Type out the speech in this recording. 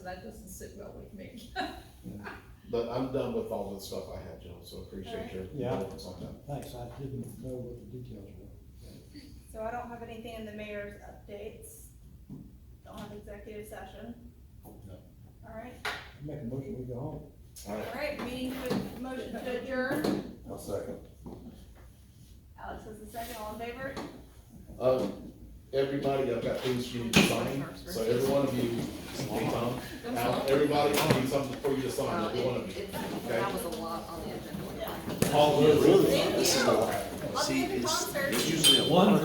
That doesn't sit well with me. But I'm done with all the stuff I had, Joe, so appreciate your Yeah. comments on that. Thanks, I didn't know what the details were. So I don't have anything in the mayor's updates. Don't have executive session. No. All right, Make a motion, we go home. All right, all right, meeting with motion to adjourn. I'll second. Alex is the second, all in favor? um, everybody, I've got things you need to sign, so every one of you, hey, Tom, Al, everybody, I need something for you to sign, Well, every one it- of you. it's- That was a lot on the agenda. All of you. Thank you. I'll see you at the concert. Usually a One